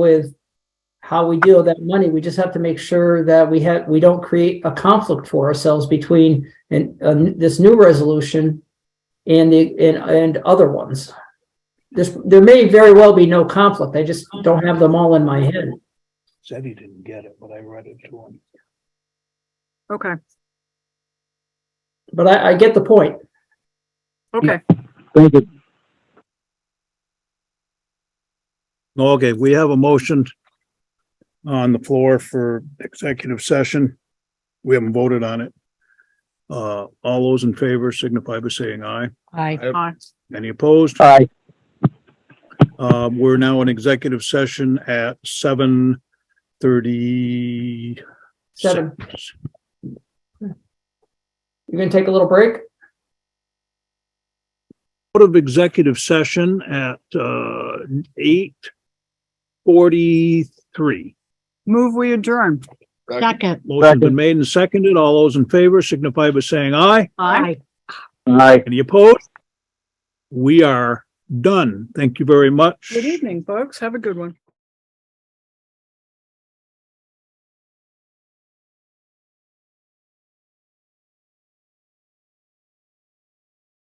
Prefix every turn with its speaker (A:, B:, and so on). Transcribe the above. A: with how we deal with that money. We just have to make sure that we have, we don't create a conflict for ourselves between and uh, this new resolution and the, and, and other ones. This, there may very well be no conflict. I just don't have them all in my head.
B: Said he didn't get it, but I read it to him.
C: Okay,
A: But I, I get the point.
C: okay.
D: Thank you.
B: Okay, we have a motion on the floor for executive session. We haven't voted on it. Uh, all those in favor signify by saying aye.
E: Aye.
C: Aye.
B: Any opposed?
D: Aye.
B: Uh, we're now in executive session at seven thirty.
A: Seven. You gonna take a little break?
B: Out of executive session at, uh, eight forty-three.
C: Move, we adjourn.
E: Second.
B: Motion's been made and seconded. All those in favor signify by saying aye.
C: Aye.
D: Aye.
B: Any opposed? We are done. Thank you very much.
C: Good evening, folks. Have a good one.